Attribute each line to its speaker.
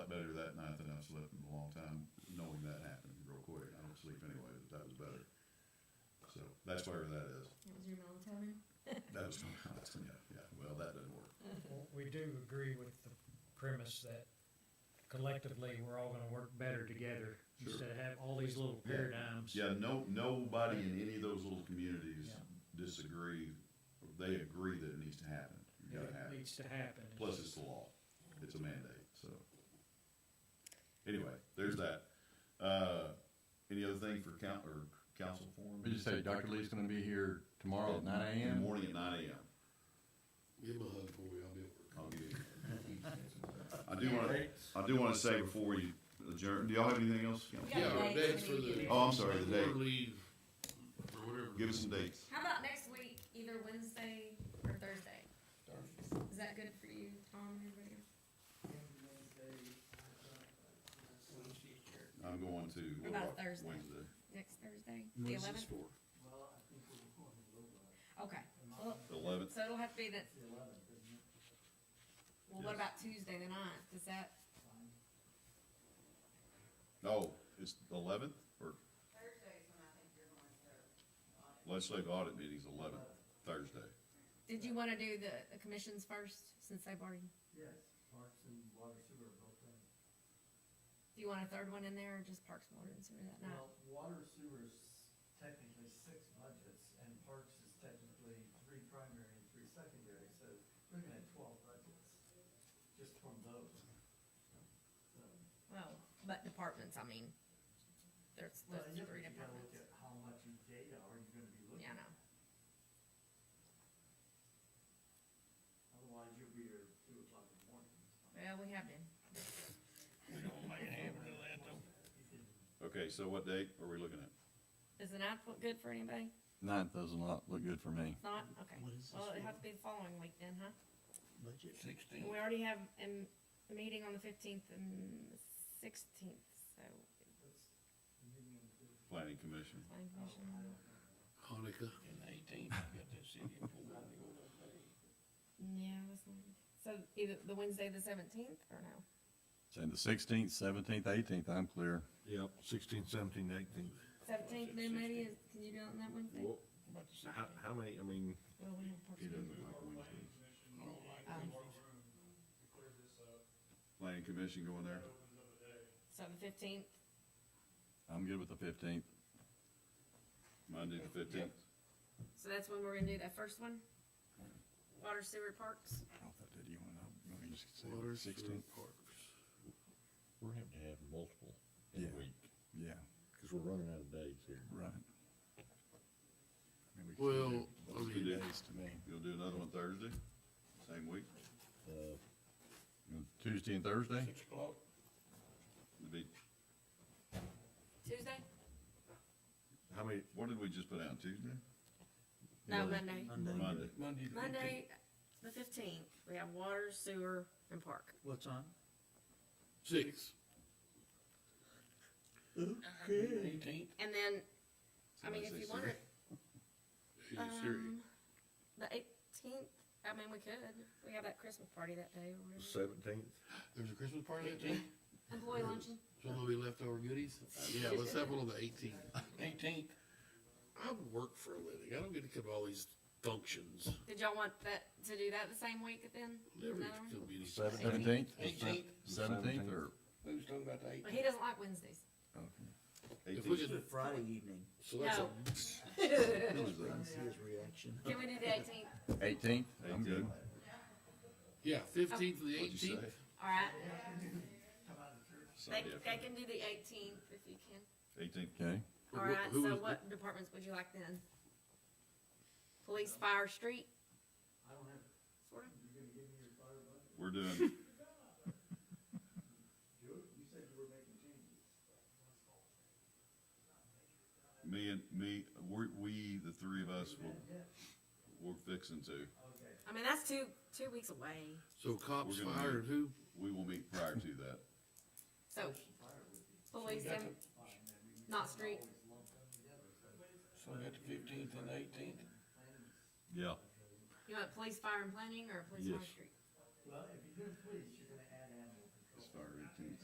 Speaker 1: so that's where that is.
Speaker 2: That was your melatonin?
Speaker 1: That was my comments, yeah, yeah, well, that didn't work.
Speaker 3: Well, We do agree with the premise that collectively, we're all gonna work better together
Speaker 1: Sure.
Speaker 3: instead of have all these little
Speaker 1: Yeah.
Speaker 3: paradigms.
Speaker 1: Yeah, no, nobody in any of those little communities
Speaker 3: Yeah.
Speaker 1: disagree, they agree that it needs to happen, you gotta
Speaker 3: It
Speaker 1: have it.
Speaker 3: needs to happen.
Speaker 1: Plus, it's the law, it's a mandate, so. Anyway, there's that. Uh, any other thing for coun, or council forum?
Speaker 4: We just say Dr. Lee's gonna be here tomorrow at nine
Speaker 1: In the
Speaker 4: AM.
Speaker 1: Morning at nine AM,
Speaker 5: Give him a hug for me, I'll be at work.
Speaker 1: I'll give you. I do wanna, I do wanna say before you adjourn, do y'all have anything else? Council?
Speaker 2: Yeah,
Speaker 5: Yeah,
Speaker 2: dates
Speaker 5: our dates
Speaker 2: we
Speaker 5: for
Speaker 2: need to
Speaker 5: the.
Speaker 2: do.
Speaker 1: Oh, I'm sorry, the date.
Speaker 5: Leave, or whatever.
Speaker 1: Give us some dates.
Speaker 2: How about next week, either Wednesday or Thursday? Is that good for you, Tom, and everybody else?
Speaker 1: I'm going to.
Speaker 2: What about Thursday?
Speaker 1: Wednesday.
Speaker 2: Next Thursday, the eleventh? Okay, well,
Speaker 1: The eleventh,
Speaker 2: so it'll have to be that. Well, what about Tuesday the ninth? Is that,
Speaker 1: no, it's the eleventh, or legislative audit meeting's eleventh, Thursday.
Speaker 2: did you wanna do the, the commissions first, since they've already,
Speaker 6: Yes, parks and water sewer are both in.
Speaker 2: do you want a third one in there, or just Parks and Water and Sewer that night?
Speaker 6: Well, water sewer's technically six budgets, and parks is technically three primary and three secondary, so we're gonna have twelve budgets, just from those. So,
Speaker 2: Well, but departments, I mean, there's,
Speaker 6: Well,
Speaker 2: there's
Speaker 6: you
Speaker 2: three
Speaker 6: you gotta look
Speaker 2: departments.
Speaker 6: at how much you data are you gonna be looking
Speaker 2: Yeah, I
Speaker 6: at,
Speaker 2: know.
Speaker 6: otherwise you'll be here at two o'clock in the morning.
Speaker 2: Well, we have been.
Speaker 1: Okay, so what date are we looking at?
Speaker 2: Is the ninth look good for anybody?
Speaker 4: Ninth doesn't look, look good for me.
Speaker 2: Not, okay.
Speaker 7: What is this
Speaker 2: Well, it
Speaker 7: for?
Speaker 2: has to be the following week then, huh?
Speaker 7: Budget.
Speaker 2: We already have um, a meeting on the fifteenth and sixteenth, so.
Speaker 6: That's the meeting on the-
Speaker 1: Planning Commission.
Speaker 2: planning
Speaker 7: Oh,
Speaker 6: I don't- I
Speaker 2: commission-
Speaker 6: don't know.
Speaker 5: Hanukkah.
Speaker 2: Yeah, that's not, so either the Wednesday, the seventeenth, or no?
Speaker 4: Say the sixteenth, seventeenth, eighteenth, I'm clear.
Speaker 7: Yep, sixteen, seventeen, eighteen.
Speaker 2: Seventeenth then maybe, is- can you do it on that Wednesday?
Speaker 7: Well, how, how many, I mean,
Speaker 2: Well, we have Parks
Speaker 1: He
Speaker 2: and
Speaker 1: doesn't
Speaker 2: Rec.
Speaker 1: like Wednesday.
Speaker 2: Um,
Speaker 1: Planning Commission going there?
Speaker 2: So the fifteenth,
Speaker 4: I'm good with the fifteenth.
Speaker 1: Monday the fifteenth?
Speaker 2: so that's when we're gonna do that first one? Water sewer parks?
Speaker 5: Water, sewer, parks.
Speaker 8: We're having to have multiple in
Speaker 4: Yeah,
Speaker 8: a week,
Speaker 4: yeah,
Speaker 8: because we're running out of days here.
Speaker 4: right. I mean, we can
Speaker 5: Well,
Speaker 4: do
Speaker 5: I
Speaker 4: those
Speaker 1: mean-
Speaker 4: two days to me.
Speaker 1: You'll do another one Thursday, same week?
Speaker 8: Uh,
Speaker 4: You know, Tuesday and Thursday?
Speaker 8: o'clock.
Speaker 1: It'd be,
Speaker 2: Tuesday?
Speaker 7: how many,
Speaker 1: what did we just put out, Tuesday?
Speaker 2: No, Monday.
Speaker 1: Monday.
Speaker 8: Monday.
Speaker 2: Monday, the fifteenth, we have water, sewer, and park.
Speaker 7: What's on?
Speaker 5: Six.
Speaker 8: Eighteenth.
Speaker 2: And then, I mean, if you want it,
Speaker 5: Hey, Siri.
Speaker 2: um, the eighteenth, I mean, we could, we have that Christmas party that day or whatever.
Speaker 7: Seventeenth?
Speaker 5: There's a Christmas party that day?
Speaker 2: Employee
Speaker 5: um,
Speaker 2: luncheon?
Speaker 5: Some of the leftover goodies? Yeah, let's have one on the eighteenth.
Speaker 8: Eighteenth.
Speaker 5: I work for a living. I don't get to come to all these functions.
Speaker 2: Did y'all want that, to do that the same week then?
Speaker 5: Never
Speaker 2: Another
Speaker 5: gonna
Speaker 2: one?
Speaker 5: be any.
Speaker 4: Seventeenth?
Speaker 8: Eighteenth.
Speaker 4: Seventeenth or,
Speaker 8: We was talking about the
Speaker 2: But
Speaker 8: eighteenth.
Speaker 2: he doesn't like Wednesdays.
Speaker 5: If we
Speaker 1: Eighteenth?
Speaker 5: could,
Speaker 7: Friday evening.
Speaker 5: so that's a,
Speaker 2: No.
Speaker 7: See his reaction.
Speaker 2: Can we do the eighteenth?
Speaker 4: eighteenth? I'm good.
Speaker 5: yeah, fifteenth to the
Speaker 1: What'd you
Speaker 5: eighteenth.
Speaker 1: say?
Speaker 2: All right, they,
Speaker 1: Sunday
Speaker 2: they can do the eighteenth if you can.
Speaker 1: Eighteenth,
Speaker 4: Okay,
Speaker 2: All right,
Speaker 5: Who
Speaker 2: so
Speaker 5: was-
Speaker 2: what departments would you like then? Police, fire, street,
Speaker 6: I don't have,
Speaker 2: sort of?
Speaker 6: you're gonna give me your fire budget?
Speaker 1: we're doing,
Speaker 6: Do it, you said you were making changes.
Speaker 1: me and, me, we, we, the three of us, will
Speaker 6: Yeah,
Speaker 1: we're fixing to.
Speaker 6: okay.
Speaker 2: I mean, that's two, two weeks away.
Speaker 5: So cops,
Speaker 1: We're gonna
Speaker 5: fire, and who?
Speaker 1: We will meet prior to that.
Speaker 2: So, police and, not street,
Speaker 8: So we got the fifteenth and eighteenth.
Speaker 1: Yeah.
Speaker 2: you want police, fire and planning, or police, fire,
Speaker 8: Yes.
Speaker 2: street?
Speaker 6: Well, if you do police, you're gonna add animal control.
Speaker 1: Started.